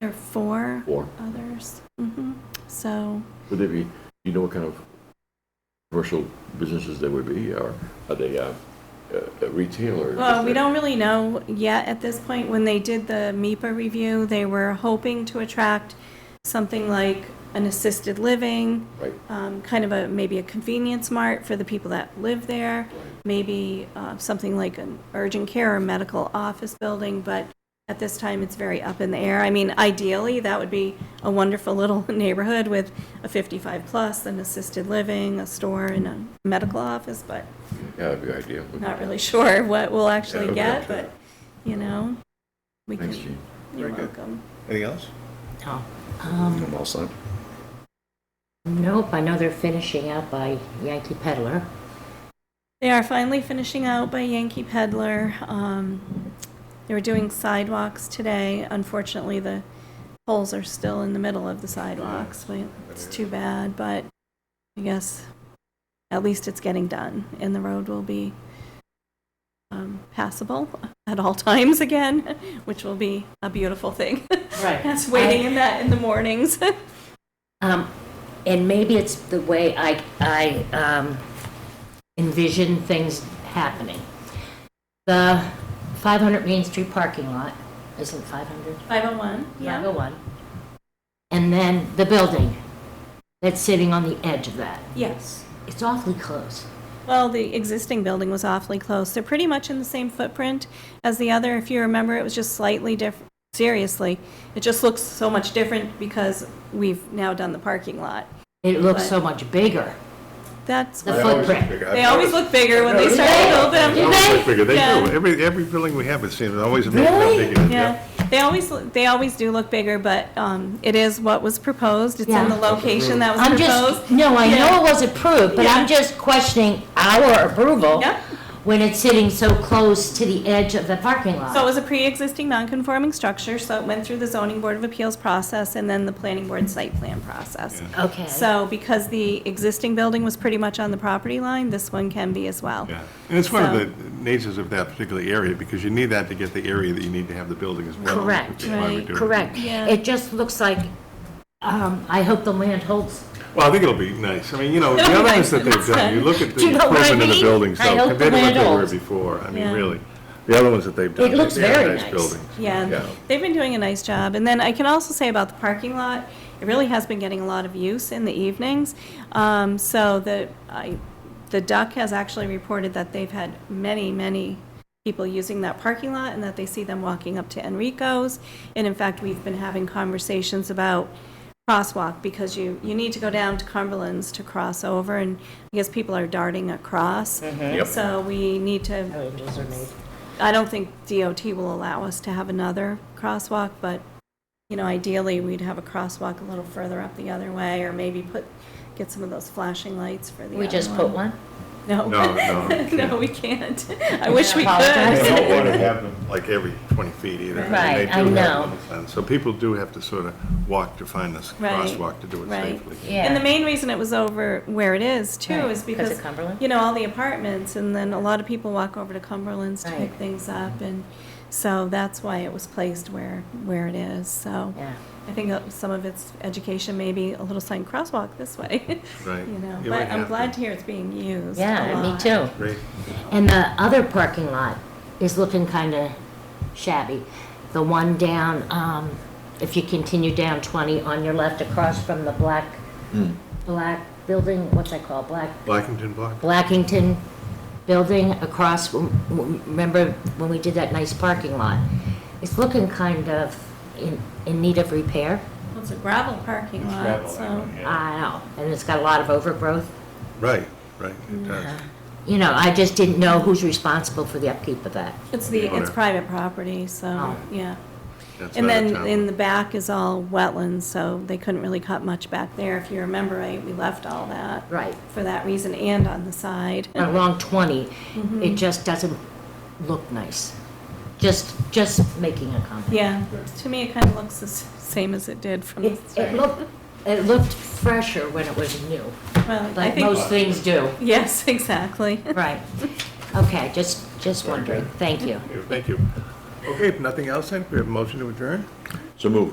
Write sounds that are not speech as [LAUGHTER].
There are four Four. others. hmm So, Would they be, you know what kind of commercial businesses they would be, or are they uh, uh, retail or? well, we don't really know yet at this point. When they did the MIPA review, they were hoping to attract something like an assisted living, Right, um, kind of a, maybe a convenience mart for the people that live there, maybe uh, something like an urgent care or medical office building, but at this time, it's very up in the air. I mean, ideally, that would be a wonderful [LAUGHS] little neighborhood with a 55-plus, an assisted living, a store, and a medical office, but yeah, that'd be ideal. not really sure what we'll actually Yeah, get, okay. but, you know, we Thanks, can, Gene. you're Very good. welcome. Anything else? No. I'm all set. Um, Nope, I know they're finishing out by Yankee Peddler. They are finally finishing out by Yankee Peddler. Um, They were doing sidewalks today. Unfortunately, the poles are still in the middle of the sidewalks. We- It's too bad, but I guess at least it's getting done, and the road will be um, passable at all times again, [LAUGHS] which will be a beautiful thing. [LAUGHS] Right. That's waiting in that in the mornings. [LAUGHS] Um, and maybe it's the way I, I, um, envision things happening. The 500 Main Street parking lot, is it 500? 501, yeah. 501. And then the building that's sitting on the edge of that. Yes. It's awfully close. Well, the existing building was awfully close. They're pretty much in the same footprint as the other. If you remember, it was just slightly different. Seriously, it just looks so much different because we've now done the parking lot. It looks so much bigger. That's, The why- footprint. they always look bigger when they start to build them. They- Bigger, they do. Yeah. Every, every building we have, it seems, always a little Really? bit bigger. Yeah, they always, look- they always do look bigger, but um, it is what was proposed. It's Yeah. in the location that was I'm proposed. just, no, I Yeah. know it was approved, but I'm just questioning our approval Yeah. when it's sitting so close to the edge of the parking So it lot. was a pre-existing non-conforming structure, so it went through the zoning board of appeals process and then the planning board site plan process. Okay. So because the existing building was pretty much on the property line, this one can be as well. Yeah, and it's one of So- the natures of that particular area, because you need that to get the area that you need to have the building as well. Correct. which is why we Right. do it. Correct. Yeah. It just looks like, um, I hope the land holds. Well, I think it'll be nice. I mean, you know, the other ones that they've done, you look at Do the you know what I improvement in the mean? buildings, I though, hope compared to the what they land were holds. before, I mean, Yeah. really. The other ones that they've done. It looks they are very nice. buildings. Yeah, they've been doing a nice job. And then I can also say about the parking lot, it really has been getting a lot of use in the evenings. Um, So the, I, the Duck has actually reported that they've had many, many people using that parking lot and that they see them walking up to Enrico's. And in fact, we've been having conversations about crosswalk because you, you need to go down to Cumberland's to cross over and I guess people are darting across. Yep. So we need to Changes are made. I don't think DOT will allow us to have another crosswalk, but, you know, ideally, we'd have a crosswalk a little further up the other way, or maybe put, get some of those flashing lights for the other We just put one? No. No, no, [LAUGHS] we can't. No, we can't. [LAUGHS] I wish we You apologize. could. don't want to have them like every 20 feet either. and they Right, I do have know. them done. So people do have to sort of walk to find this Right, crosswalk to do it right. safely. Yeah. And the main reason it was over where it is, too, Right, is 'cause of because, Cumberland? you know, all the apartments, and then a lot of people walk over to Cumberland's to pick Right. things up, and so that's why it was placed where, where it is, so. Yeah. I think uh, some of its education may be a little sign crosswalk this way. [LAUGHS] Right. You know, You but might I'm have glad to. to hear it's being used. a Yeah, me lot. too. Great. And the other parking lot is looking kind of shabby. The one down, um, if you continue down 20 on your left across from the black, Hmm. black building, what's that called? Black, Blackington Block? Blackington building across, w- w- remember when we did that nice parking lot? It's looking kind of in, in need of repair. Well, It's a gravel parking lot, so. I know, and it's got a lot of overgrowth. Right, right, it does. You know, I just didn't know who's responsible for the upkeep of that. It's the, Yeah. it's private property, so, Oh. yeah. That's And not a then town. in the back is all wetlands, so they couldn't really cut much back there. If you remember right, we left all that. Right. For that reason and on the side. along 20, Mm-hmm. it just doesn't look nice. Just, just making a comment. [LAUGHS] Yeah, to me, it kind of looks the s- same as it did from the It, it start. looked, it looked fresher when it was new, Well, I like think, most things do. [LAUGHS] yes, exactly. Right. Okay, just, just wondering. Thank you. Thank you. Okay, if nothing else, then, we have a motion to adjourn? So move.